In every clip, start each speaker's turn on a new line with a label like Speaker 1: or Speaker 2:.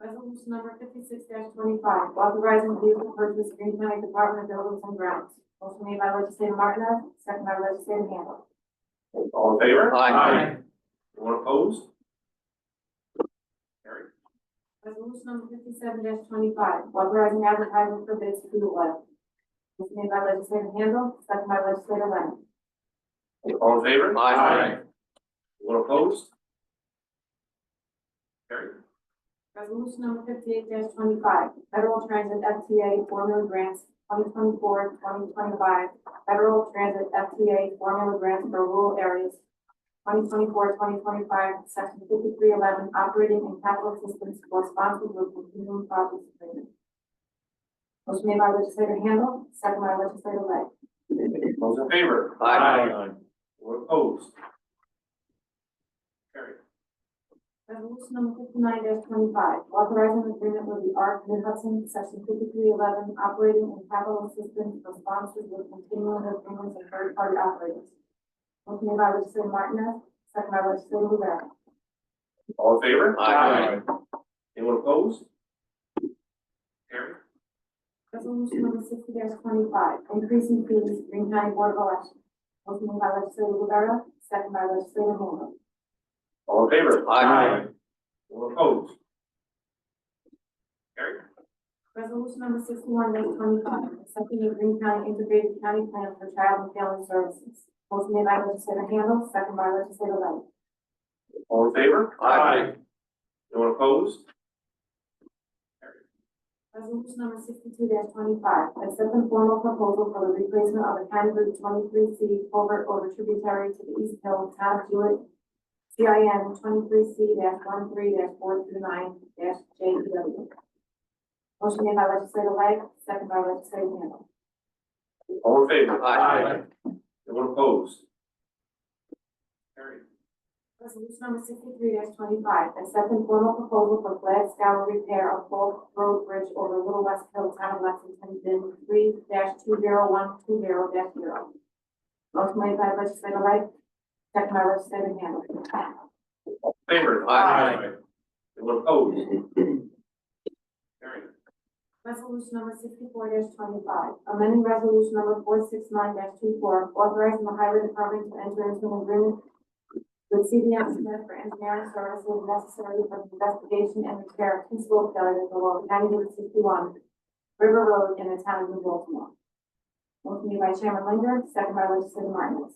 Speaker 1: Resolution number fifty-six twenty-five, authorizing vehicle purchase Green County Department of Buildings and Grounds. Motion made by legislator Martinez, second by legislator Handle.
Speaker 2: All in favor?
Speaker 3: Aye.
Speaker 2: Anyone opposed? Carried.
Speaker 1: Resolution number fifty-seven twenty-five, authorizing advertising for bids for the oil. Motion made by legislator Handle, second by legislator Lennon.
Speaker 2: All in favor?
Speaker 3: Aye.
Speaker 2: Anyone opposed? Carried.
Speaker 1: Resolution number fifty-eight twenty-five, Federal Transit FTA Formula Grants 2024-2025 Federal Transit FTA Formula Grants for Rural Areas 2024-2025, Section fifty-three eleven, Operating and Capital Assistance for Responsible Continuing Projects Agreement. Motion made by legislator Handle, second by legislator Lang.
Speaker 2: Those in favor?
Speaker 3: Aye.
Speaker 2: Anyone opposed? Carried.
Speaker 1: Resolution number fifty-nine twenty-five, authorizing an agreement with the ARC Mid Hudson, section fifty-three eleven, operating and capital assistance for sponsors with continuing agreements and third-party operators. Motion made by legislator Martinez, second by legislator Rivera.
Speaker 2: All in favor?
Speaker 3: Aye.
Speaker 2: Anyone opposed? Carried.
Speaker 1: Resolution number sixty twenty-five, increasing fees, Green County Board of Elections. Motion made by legislator Rivera, second by legislator Moore.
Speaker 2: All in favor?
Speaker 3: Aye.
Speaker 2: Anyone opposed? Carried.
Speaker 1: Resolution number sixty-one, eight twenty-five, accepting the Green County Integrated County Plan for Child and Family Services. Motion made by legislator Handle, second by legislator Lang.
Speaker 2: All in favor?
Speaker 3: Aye.
Speaker 2: Anyone opposed?
Speaker 1: Resolution number sixty-two twenty-five, accepting formal proposal for the replacement of the County Route twenty-three C culvert over tributary to the East Hill Town of Jewett, CIN twenty-three C one three four two nine J E W. Motion made by legislator Lang, second by legislator Handle.
Speaker 2: All in favor?
Speaker 3: Aye.
Speaker 2: Anyone opposed? Carried.
Speaker 1: Resolution number sixty-three twenty-five, accepting formal proposal for flag scour repair of Polk Road Bridge over Little West Hill, Town of Lexington, bin three two zero one two zero zero. Motion made by legislator Wright, second by legislator Handle.
Speaker 2: Favor?
Speaker 3: Aye.
Speaker 2: Anyone opposed? Carried.
Speaker 1: Resolution number sixty-four twenty-five, amending resolution number four six nine 24 authorizing the highway department to enter into an agreement with CDM Smith for engineering services necessary for the investigation and repair of principal failures along County Route sixty-one, River Road in the town of New Baltimore. Motion made by Chairman Linger, second by legislator Martinez.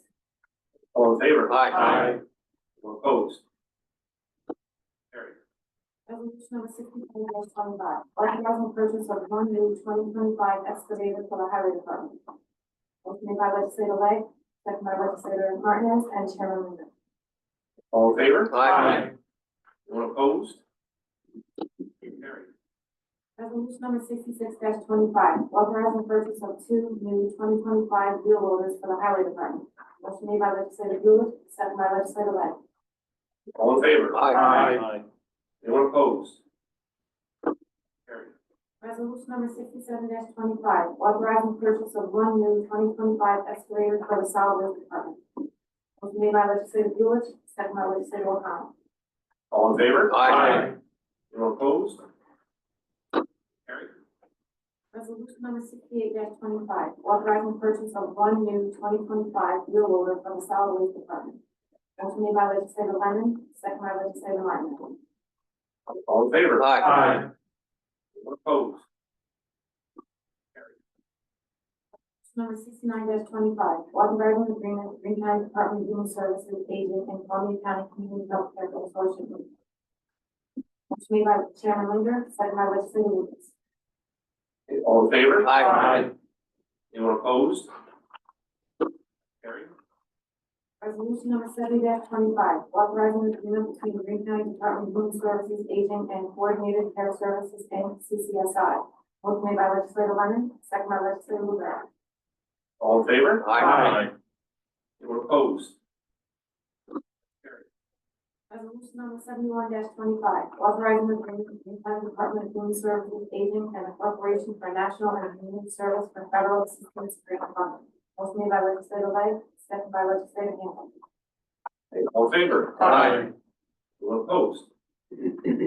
Speaker 2: All in favor?
Speaker 3: Aye.
Speaker 2: Anyone opposed? Carried.
Speaker 1: Resolution number sixty-four twenty-five, authorizing purchase of one new twenty twenty-five excavator for the highway department. Motion made by legislator Lang, second by legislator Martinez and Chairman Linder.
Speaker 2: All in favor?
Speaker 3: Aye.
Speaker 2: Anyone opposed? Carried.
Speaker 1: Resolution number sixty-six twenty-five, authorizing purchase of two new twenty twenty-five wheel loaders for the highway department. Motion made by legislator Lewis, second by legislator Lang.
Speaker 2: All in favor?
Speaker 3: Aye.
Speaker 4: Aye.
Speaker 2: Anyone opposed? Carried.
Speaker 1: Resolution number sixty-seven twenty-five, authorizing purchase of one new twenty twenty-five excavator for the solid waste department. Motion made by legislator Lewis, second by legislator O'Connell.
Speaker 2: All in favor?
Speaker 3: Aye.
Speaker 2: Anyone opposed? Carried.
Speaker 1: Resolution number sixty-eight twenty-five, authorizing purchase of one new twenty twenty-five wheel loader from the solid waste department. Motion made by legislator Lennon, second by legislator Martin.
Speaker 2: All in favor?
Speaker 3: Aye.
Speaker 2: Anyone opposed?
Speaker 1: Resolution Number sixty-nine twenty-five, authorizing agreement with Green County Department of Human Services Agent and Columbia County Community Health Care Consortium. Motion made by Chairman Linder, second by legislator Lewis.
Speaker 2: All in favor?
Speaker 3: Aye.
Speaker 2: Anyone opposed? Carried.
Speaker 1: Resolution number seventy twenty-five, authorizing agreement between the Green County Department of Human Services Agent and Coordinated Care Services and CCSI. Motion made by legislator Lennon, second by legislator Rivera.
Speaker 2: All in favor?
Speaker 3: Aye.
Speaker 2: Anyone opposed?
Speaker 1: Resolution number seventy-one twenty-five, authorizing agreement between the Green County Department of Human Services Agent and the Corporation for National and Community Service for Federal Assistance Grant Fund. Motion made by legislator Lang, second by legislator Handle.
Speaker 2: All in favor?
Speaker 3: Aye.
Speaker 2: Anyone opposed?